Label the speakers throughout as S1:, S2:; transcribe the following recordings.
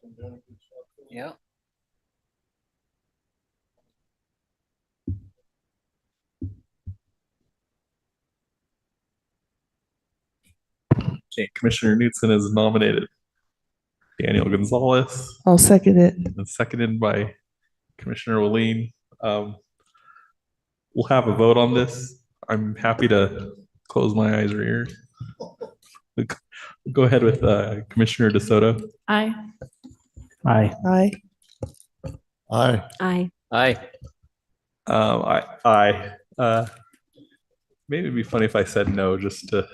S1: from doing construction.
S2: Yeah.
S3: Okay, Commissioner Newton is nominated. Daniel Gonzalez,
S4: I'll second it.
S3: and seconded by Commissioner Willeen. Um, We'll have a vote on this. I'm happy to close my eyes or ears. Go ahead with uh, Commissioner DeSoto.
S5: Aye.
S6: Aye.
S4: Aye.
S1: Aye.
S5: Aye.
S2: Aye.
S3: Um, I, I, uh, maybe it'd be funny if I said no, just to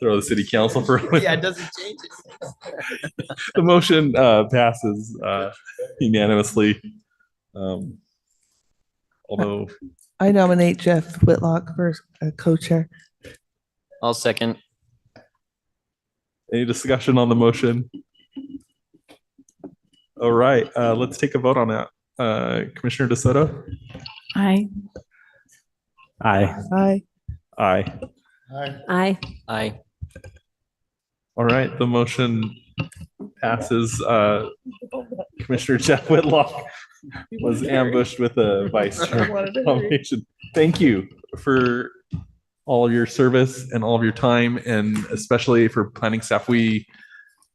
S3: throw the city council for. Yeah, it doesn't change it. The motion, uh, passes, uh, unanimously. Um, although,
S4: I nominate Jeff Whitlock for uh, co-chair.
S2: I'll second.
S3: any discussion on the motion? All right, uh, let's take a vote on that. Uh, Commissioner DeSoto?
S5: Aye.
S6: Aye.
S4: Aye.
S3: Aye.
S1: Aye.
S5: Aye.
S2: Aye.
S3: All right, the motion passes. Uh, Commissioner Jeff Whitlock was ambushed with a vice chair nomination. Thank you for all your service and all of your time and especially for planning staff. We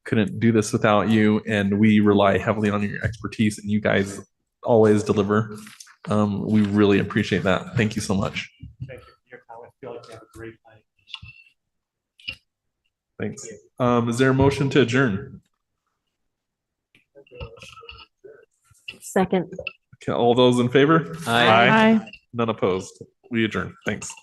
S3: couldn't do this without you and we rely heavily on your expertise and you guys always deliver. Um, we really appreciate that. Thank you so much.
S6: Thank you for your comments. Feel like you have a great night.
S3: Thanks. Um, is there a motion to adjourn?
S5: Second.
S3: Can all those in favor?
S2: Aye.
S3: None opposed. We adjourn. Thanks.